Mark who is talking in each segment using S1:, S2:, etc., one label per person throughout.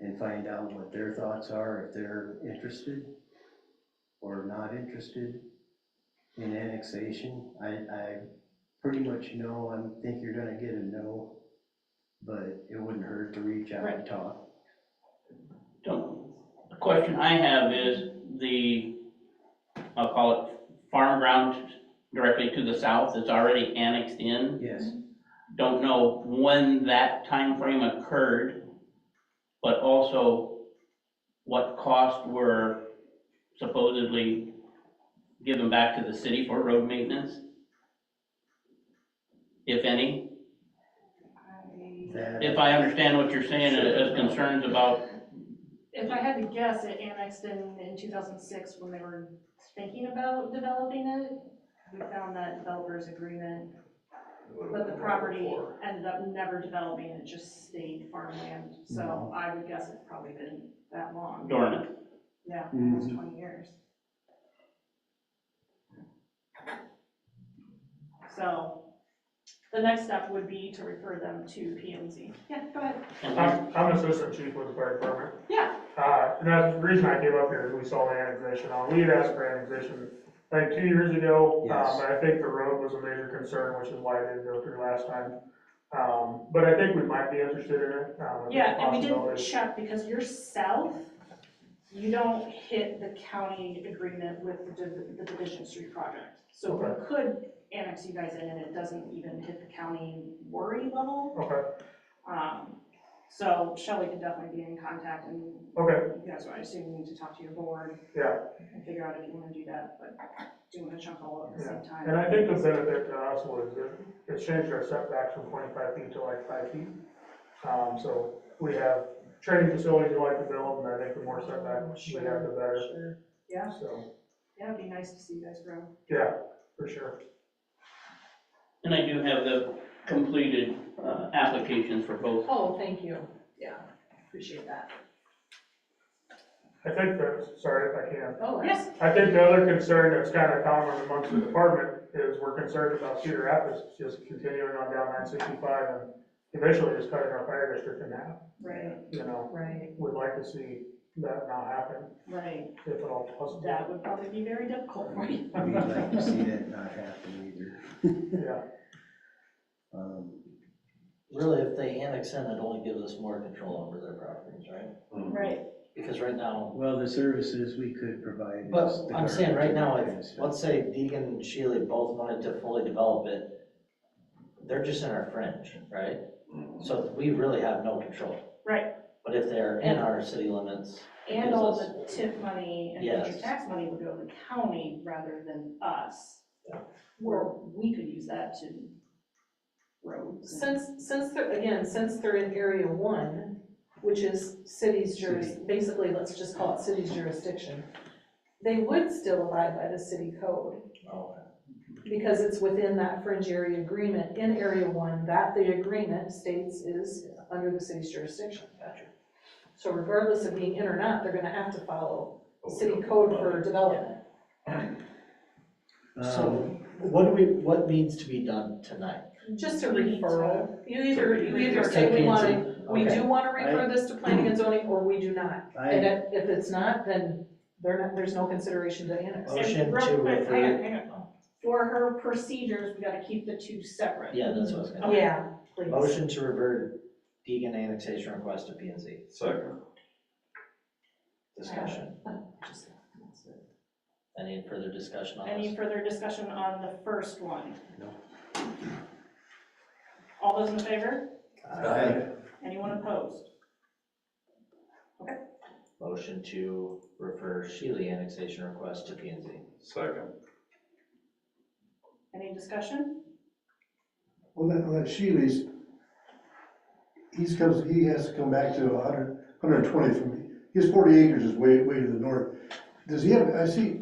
S1: and find out what their thoughts are, if they're interested or not interested in annexation. I, I pretty much know, I think you're gonna get a no, but it wouldn't hurt to reach out and talk.
S2: Don't- The question I have is the, I'll call it farm ground directly to the south is already annexed in.
S1: Yes,
S2: Don't know when that time frame occurred, but also what costs were supposedly given back to the city for road maintenance? If any, if
S1: that,
S2: I understand what you're saying as concerns about,
S3: If I had to guess, it annexed in, in 2006 when they were thinking about developing it. We found that developers agreement, but the property ended up never developing, it just stayed farmland. So
S1: Mhm.
S3: I would guess it's probably been that long.
S2: dormant.
S3: Yeah, almost 20 years. So the next step would be to refer them to PMZ. Yeah, go ahead.
S4: I'm, I'm assistant chief with the fire department.
S3: Yeah.
S4: Uh, and that's the reason I came up here is we saw the annexation, uh, we had asked for annexation like two years ago.
S1: Yes.
S4: Um, but I think the road was a major concern, which is why it didn't go through last time. Um, but I think we might be interested in it, um, if
S3: Yeah,
S4: there's
S3: and we didn't
S4: possibilities.
S3: check because you're south, you don't hit the county agreement with the div- the Division Street project. So we
S4: Okay.
S3: could annex you guys in and it doesn't even hit the county worry level.
S4: Okay,
S3: Um, So Shelley can definitely be in contact and
S4: okay,
S3: you guys, I assume you need to talk to your board
S4: yeah.
S3: and figure out if you want to do that, but doing a chunk all at the same time.
S4: And I think the benefit to us was it, it changed our setbacks from twenty-five feet to like five feet. Um, so we have training facilities we like to build, and I think the more setbacks we have, the better,
S3: Sure. Yeah,
S4: so,
S3: yeah, it'd be nice to see you guys grow.
S4: yeah, for sure.
S2: And I do have the completed uh, applications for both.
S5: Oh, thank you. Yeah, appreciate that.
S4: I think that, sorry if I can,
S5: Oh,
S3: Yes,
S4: I think the other concern that's kind of common amongst the department is we're concerned about Cedar Rapids just continuing on down nine sixty-five and eventually just cutting our fire district in half,
S3: right,
S4: you know,
S5: Right,
S4: we'd like to see that not happen,
S3: right.
S4: if at all possible.
S3: That would probably be very difficult for you.
S1: we'd like to see that not happen either.
S4: Yeah,
S1: Um,
S6: Really, if they annex in, it only gives us more control over their properties, right?
S3: Right.
S6: Because right now,
S1: Well, the services we could provide. is
S6: but
S1: the
S6: I'm saying right now,
S1: garbage and
S6: if,
S1: stuff.
S6: let's say Deegan and Shealy both wanted to fully develop it, they're just in our fringe, right?
S1: Um,
S6: So we really have no control.
S3: Right.
S6: But if they're in our city limits,
S3: And all the tip money and future
S6: Yes.
S3: tax money would go to the county rather than us.
S6: Yeah.
S3: Where we could use that to roads. and-
S5: since, since they're, again, since they're in area one, which is city's juris, basically, let's just call it city's jurisdiction, they would still abide by the city code,
S6: oh,
S5: because it's within that fringe area agreement in area one, that the agreement states is under the city's jurisdiction.
S6: Gotcha.
S5: So regardless of being in or not, they're gonna have to follow city code for development.
S1: Um,
S6: so what do we, what needs to be done tonight?
S5: Just a
S3: We need to-
S5: referral. You either, you either
S6: Just
S5: say
S6: take
S5: we
S6: it
S5: want to
S6: into-
S5: We
S6: okay.
S5: do want to refer this to planning and zoning, or we do not. And
S1: I,
S5: if, if it's not, then they're not, there's no consideration to annex.
S6: Motion
S3: And real
S6: to
S3: quick, hang on,
S6: refer-
S3: hang on. For her procedures, we gotta keep the two separate.
S6: Yeah, that's what I was gonna.
S5: Yeah, please.
S6: Motion to revert Deegan annexation request to P and Z.
S7: Second.
S6: Discussion. Any further discussion on
S3: Any
S6: this?
S3: further discussion on the first one?
S1: No.
S3: All those in favor?
S1: I,
S3: Anyone opposed?
S6: Motion to refer Shealy annexation request to P and Z.
S7: Second.
S3: Any discussion?
S8: Well, that, that Shealy's, he's comes, he has to come back to a hundred, hundred and twenty from me. His forty acres is way, way to the north. Does he have, I see,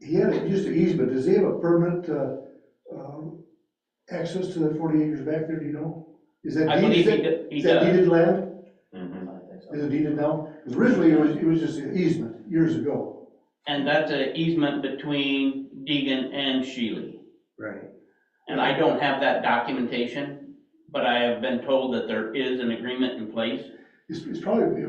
S8: he had it used to easement, does he have a permanent, uh, um, access to the forty acres back there, do you know? Is that
S2: I
S8: deed-
S2: believe he
S8: is that-
S2: did- he
S8: Is that
S2: does.
S8: deeded land?
S6: I
S7: Mhm.
S6: think so.
S8: Is it deeded now? 'Cause originally it was, it was just an easement years ago.
S2: And that's an easement between Deegan and Shealy.
S1: right.
S2: And I don't have that documentation, but I have been told that there is an agreement in place.
S8: It's, it's probably,